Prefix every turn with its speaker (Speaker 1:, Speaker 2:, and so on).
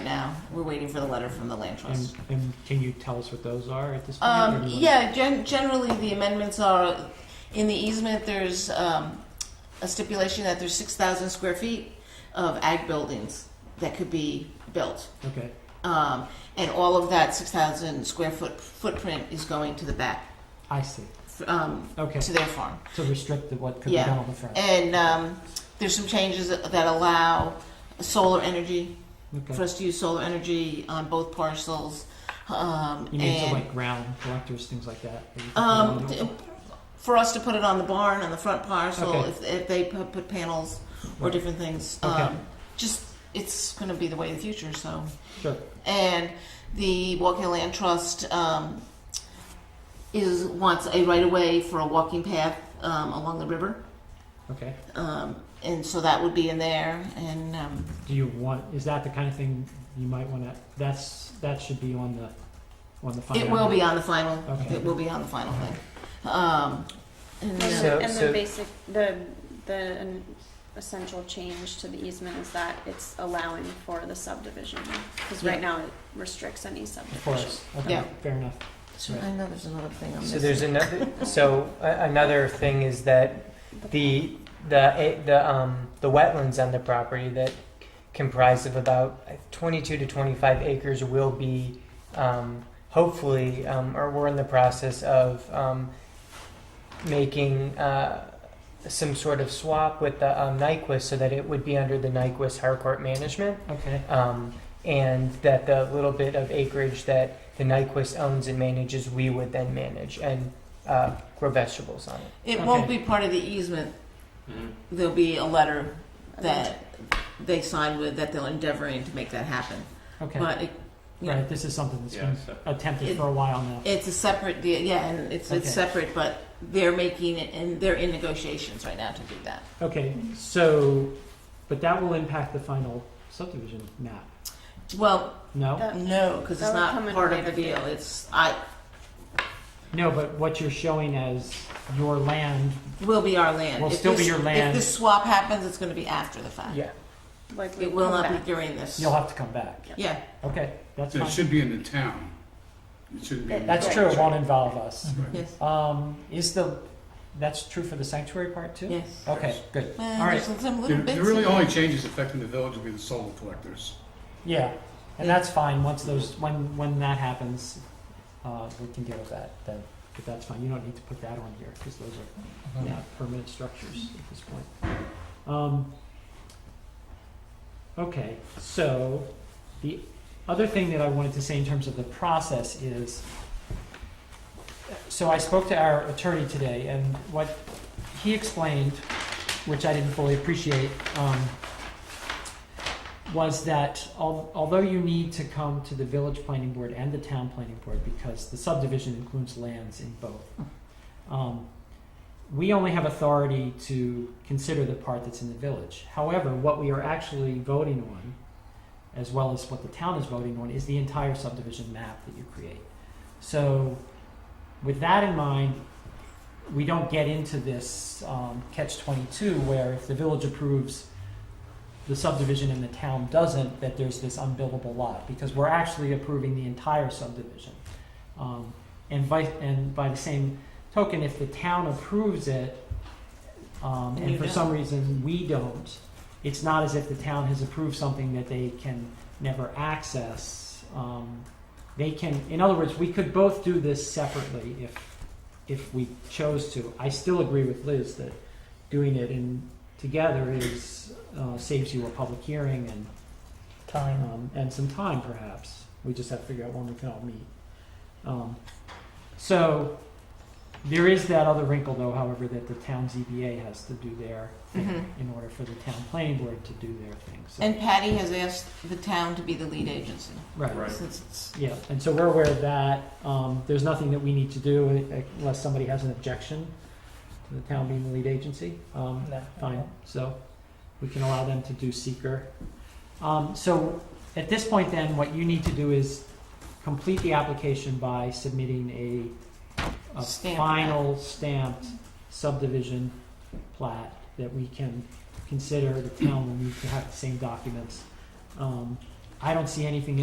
Speaker 1: now. We're waiting for the letter from the land trust.
Speaker 2: And, and can you tell us what those are at this point? or
Speaker 1: Um,
Speaker 2: do you wanna-
Speaker 1: yeah, gen- generally the amendments are, in the easement, there's, um, a stipulation that there's six thousand square feet of ag buildings that could be built.
Speaker 2: Okay,
Speaker 1: Um, and all of that six thousand square foot footprint is going to the back,
Speaker 2: I see.
Speaker 1: f- um,
Speaker 2: Okay,
Speaker 1: to their farm.
Speaker 2: to restrict the, what could be
Speaker 1: Yeah.
Speaker 2: done on the front.
Speaker 1: And, um, there's some changes that that allow solar energy, for
Speaker 2: Okay.
Speaker 1: us to use solar energy on both parcels, um,
Speaker 2: You mean to
Speaker 1: and-
Speaker 2: like ground collectors, things like that? that you could put
Speaker 1: Um,
Speaker 2: on
Speaker 1: th-
Speaker 2: the-
Speaker 1: for us to put it on the barn, on the front parcel,
Speaker 2: Okay.
Speaker 1: if, if they put, put panels or
Speaker 2: Right.
Speaker 1: different things.
Speaker 2: Okay.
Speaker 1: Um, just, it's gonna be the way of the future, so.
Speaker 2: Sure,
Speaker 1: And the Walking Land Trust, um, is, wants a right-of-way for a walking path, um, along the river.
Speaker 2: okay.
Speaker 1: Um, and so that would be in there, and, um,
Speaker 2: Do you want, is that the kind of thing you might wanna, that's, that should be on the, on the final?
Speaker 1: it will be on the final,
Speaker 2: Okay.
Speaker 1: it will be on the final thing. Um, and,
Speaker 3: And,
Speaker 1: uh,
Speaker 4: So-
Speaker 3: the, and
Speaker 4: so-
Speaker 3: the basic, the the an essential change to the easement is that it's allowing for the subdivision because
Speaker 1: Yeah.
Speaker 3: right now it restricts any
Speaker 2: Of
Speaker 3: subdivision.
Speaker 2: course, okay,
Speaker 1: Yeah.
Speaker 2: fair enough.
Speaker 1: so I know there's another thing I'm
Speaker 4: So
Speaker 1: missing.
Speaker 4: there's another. So a- another thing is that the the eh, the um the wetlands on the property that comprise of about 22 to 25 acres will be um, hopefully um, or we're in the process of um, making uh, some sort of swap with the um, Nyquist so that it would be under the Nyquist Harcourt management
Speaker 2: Okay,
Speaker 4: um, and that the little bit of acreage that the Nyquist owns and manages, we would then manage and uh, grow vegetables on it.
Speaker 1: It won't
Speaker 2: Okay.
Speaker 1: be part of the easement. There'll be a letter that they sign with that they're endeavoring to make that happen.
Speaker 2: okay.
Speaker 1: But it, you know,
Speaker 2: Right, this is something that's
Speaker 5: Yeah,
Speaker 2: been
Speaker 5: so-
Speaker 2: attempted
Speaker 1: It-
Speaker 2: for a while now.
Speaker 1: it's a separate deal, yeah, and it's,
Speaker 2: Okay.
Speaker 1: it's separate, but they're making it, and they're in negotiations right now to do that.
Speaker 2: Okay, so, but that will impact the final subdivision map,
Speaker 1: Well,
Speaker 2: no?
Speaker 3: That-
Speaker 1: no, because it's
Speaker 3: Uh, That would come
Speaker 1: not
Speaker 3: in
Speaker 1: part of
Speaker 3: later.
Speaker 1: the deal, it's, I,
Speaker 2: No, but what you're showing as your land,
Speaker 1: will be our land.
Speaker 2: Will
Speaker 1: If
Speaker 2: still be
Speaker 1: this-
Speaker 2: your land.
Speaker 1: If this swap happens, it's gonna be after the fact.
Speaker 4: Yeah.
Speaker 3: like we
Speaker 1: It will
Speaker 3: come
Speaker 1: not
Speaker 3: back.
Speaker 1: be during this.
Speaker 2: you'll have to come back.
Speaker 1: Yeah,
Speaker 2: Okay, that's
Speaker 5: It
Speaker 2: fine.
Speaker 5: should be in the town. It shouldn't be. in the
Speaker 2: That's true,
Speaker 5: village.
Speaker 2: it won't involve us.
Speaker 5: Right.
Speaker 1: yes,
Speaker 2: Um, is the, that's true for the sanctuary part too?
Speaker 1: yes.
Speaker 2: Okay, good.
Speaker 1: Well,
Speaker 2: All right.
Speaker 1: there's some
Speaker 5: The
Speaker 1: little bits.
Speaker 5: the
Speaker 1: in
Speaker 5: really
Speaker 1: there.
Speaker 5: only changes affecting the village will be the solar collectors.
Speaker 2: Yeah, and that's fine, once those, when, when that happens, uh, we can deal with that then. But that's fine, you don't need to put that on here, because those are not permanent structures at this point. Um, okay, so the other thing that I wanted to say in terms of the process is, so I spoke to our attorney today, and what he explained, which I didn't fully appreciate, um, was that al- although you need to come to the village planning board and the town planning board, because the subdivision includes lands in both, um, we only have authority to consider the part that's in the village. However, what we are actually voting on, as well as what the town is voting on, is the entire subdivision map that you create. So, with that in mind, we don't get into this um, catch 22 where if the village approves the subdivision and the town doesn't, that there's this unbuildable lot, because we're actually approving the entire subdivision. Um, and, vice, and by the same token, if the town approves it, um,
Speaker 1: And
Speaker 2: and
Speaker 1: you
Speaker 2: for
Speaker 1: don't.
Speaker 2: some reason we don't, it's not as if the town has approved something that they can never access. Um, they can, in other words, we could both do this separately if, if we chose to. I still agree with Liz that doing it in, together is, uh, saves you a public hearing and
Speaker 4: Time.
Speaker 2: um, and some time perhaps. We just have to figure out when we can all meet. Um, so there is that other wrinkle though, however, that the town ZBA has to do their thing
Speaker 1: Mhm.
Speaker 2: in order for the town planning board to do their thing. So,
Speaker 1: And Patty has asked the town to be the lead agency,
Speaker 2: right.
Speaker 5: Right.
Speaker 1: since it's
Speaker 2: Yeah, and so we're aware of that. Um, there's nothing that we need to do unless somebody has an objection to the town being the lead agency. Um,
Speaker 4: No.
Speaker 2: fine, so we can allow them to do seeker. Um, so at this point then, what you need to do is complete the application by submitting a, a
Speaker 1: Stamp.
Speaker 2: final stamped subdivision plat that we can consider, the town will need to have the same documents. Um, I don't see anything